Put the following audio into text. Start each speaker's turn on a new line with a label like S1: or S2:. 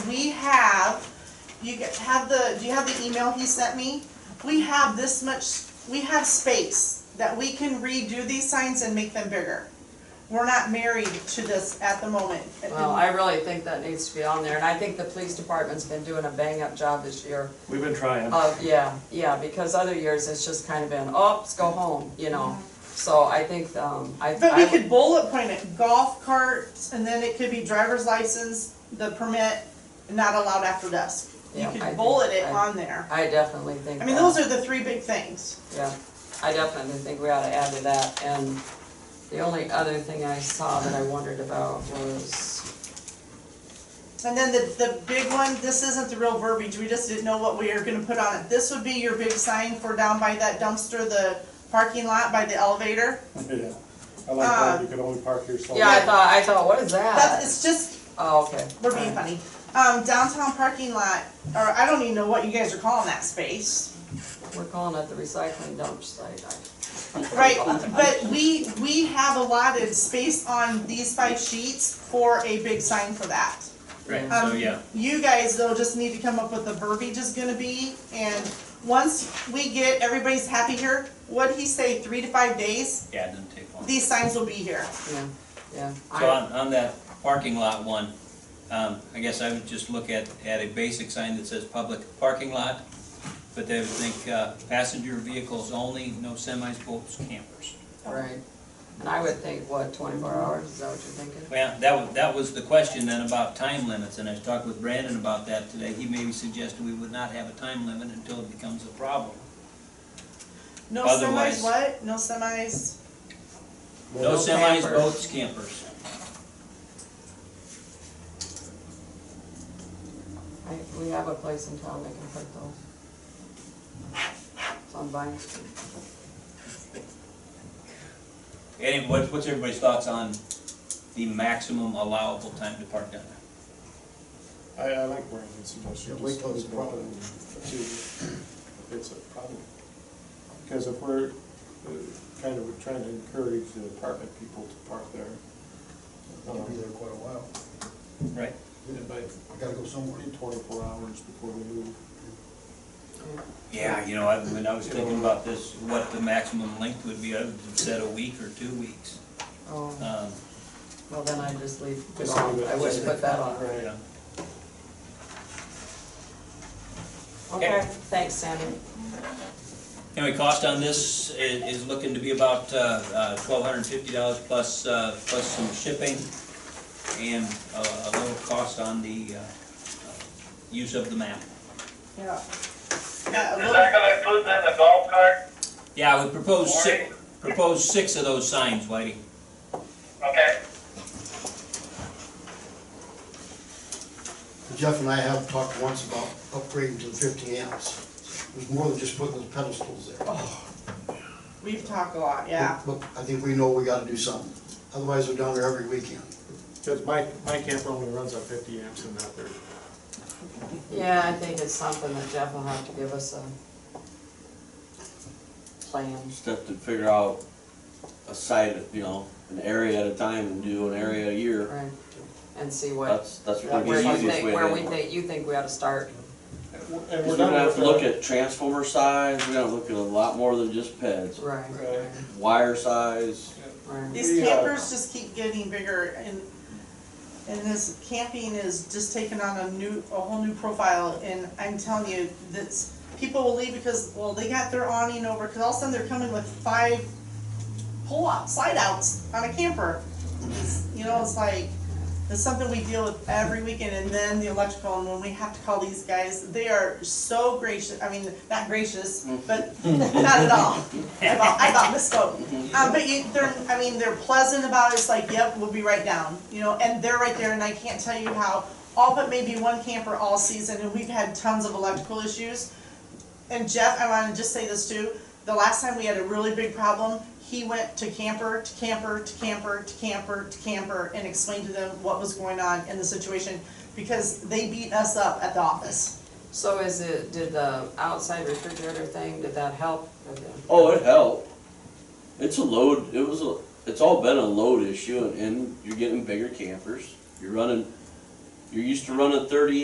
S1: we have, you get, have the, do you have the email he sent me? We have this much, we have space that we can redo these signs and make them bigger. We're not married to this at the moment.
S2: Well, I really think that needs to be on there, and I think the police department's been doing a bang-up job this year.
S3: We've been trying.
S2: Uh, yeah, yeah, because other years it's just kind of been, oh, let's go home, you know? So I think, um, I.
S1: But we
S2: I-
S1: could bullet point it, golf carts, and then it could be driver's license, the permit, not allowed after dusk. You
S2: Yeah, I
S1: could
S2: think-
S1: bullet it
S2: I-
S1: on there.
S2: I definitely think.
S1: I mean,
S2: that.
S1: those are the three big things.
S2: Yeah, I definitely think we ought to add to that, and the only other thing I saw that I wondered about was,
S1: And then the, the big one, this isn't the real verbiage, we just didn't know what we were gonna put on it. This would be your big sign for down by that dumpster, the parking lot by the elevator.
S4: Yeah, I like that,
S1: Uh,
S4: you can only park here so
S2: yeah, I
S4: long.
S2: thought, I thought, what is
S1: That's,
S2: that?
S1: it's just,
S2: Oh, okay.
S1: we're being funny.
S2: Alright.
S1: Um, downtown parking lot, or I don't even know what you guys are calling that space.
S2: We're calling it the recycling dump site. I-
S1: Right, but we, we have allotted space on these five sheets for a big sign for that.
S5: Right, so
S1: Um,
S5: yeah,
S1: You guys though just need to come up with the verbiage is gonna be, and once we get, everybody's happy here, what'd he say, three to five days?
S5: yeah, it doesn't take long.
S1: These signs will be here.
S2: Yeah, yeah.
S5: So
S2: I-
S5: on, on that parking lot one, um, I guess I would just look at, at a basic sign that says public parking lot, but they would think, uh, passenger vehicles only, no semis, boats, campers.
S2: Right, and I would think, what, twenty-four hours, is that what you're thinking?
S5: Well, that was, that was the question then about time limits, and I talked with Brandon about that today. He maybe suggested we would not have a time limit until it becomes a problem.
S1: No
S5: Otherwise-
S1: semis, what? No semis?
S5: No semis,
S2: campers.
S5: boats, campers.
S2: I, we have a place in town that can put those. It's on Vine Street.
S5: Any, what, what's everybody's thoughts on the maximum allowable time to park down there?
S4: I, I like Brandon's suggestion.
S6: Yeah, we
S4: just
S6: close the
S4: leave it
S6: problem.
S4: to- if It's a problem. Because if we're uh, kind of trying to encourage the apartment people to park there.
S6: I'll be there
S4: um,
S6: quite a while.
S5: Right.
S4: it might
S6: I gotta go somewhere.
S4: be Um, Twenty-four hours before we move.
S5: Yeah, you know, I, when I was thinking about this, what the maximum length would be, I would have said a week or two weeks.
S2: Oh,
S5: Um,
S2: well, then I just leave it
S4: Just
S2: on,
S4: leave it.
S2: I wouldn't put that on.
S4: Right.
S5: yeah.
S2: Okay, thanks, Sandy.
S5: Anyway, cost on this i- is looking to be about uh, twelve hundred and fifty dollars plus, uh, plus some shipping and uh, a little cost on the uh, uh, use of the map.
S1: Yeah. Uh, Yeah, a
S7: Is
S1: little-
S7: that gonna include then the golf cart?
S5: Yeah, I would propose six, propose six of those signs, Whitey.
S7: Okay.
S6: Jeff and I have talked once about upgrading to the fifteen amps. It was more than just putting those pedestals there.
S1: We've talked a lot, yeah.
S6: But but I think we know we gotta do something, otherwise they're down there every weekend.
S4: Because my, my camper only runs on fifty amps and not thirty.
S2: Yeah, I think it's something that Jeff will have to give us a plan.
S8: just have to figure out a site, you know, an area at a time and do an area a year.
S2: Right, and see what,
S8: That's, that's
S2: where
S8: gonna be the
S2: you
S8: easiest
S2: think,
S8: way
S2: where we
S8: to.
S2: think, you think we ought to start.
S4: And
S8: We're
S4: we're
S8: gonna
S4: done
S8: have
S4: with
S8: to look
S4: the-
S8: at transformer size, we're gonna look at a lot more than just PEDs,
S2: Right,
S4: Right.
S8: wire size.
S2: right.
S1: These
S4: We, uh,
S1: campers just keep getting bigger and, and this camping is just taking on a new, a whole new profile. And I'm telling you, that's, people will leave because, well, they got their awning over, cause all of a sudden they're coming with five pull-out, slide-outs on a camper. It's- You know, it's like, it's something we deal with every weekend and then the electrical and when we have to call these guys, they are so gracious, I mean, not gracious, but not at all. I thought, I thought misspoke. Um, but you, they're, I mean, they're pleasant about it, it's like, yep, we'll be right down, you know, and they're right there, and I can't tell you how, all but maybe one camper all season, and we've had tons of electrical issues. And Jeff, I wanna just say this too, the last time we had a really big problem, he went to camper, to camper, to camper, to camper, to camper, and explained to them what was going on in the situation, because they beat us up at the office.
S2: So is it, did the outside refrigerator thing, did that help?
S8: Oh, it helped. It's a load, it was a, it's all been a load issue and, and you're getting bigger campers. You're running, you're used to running thirty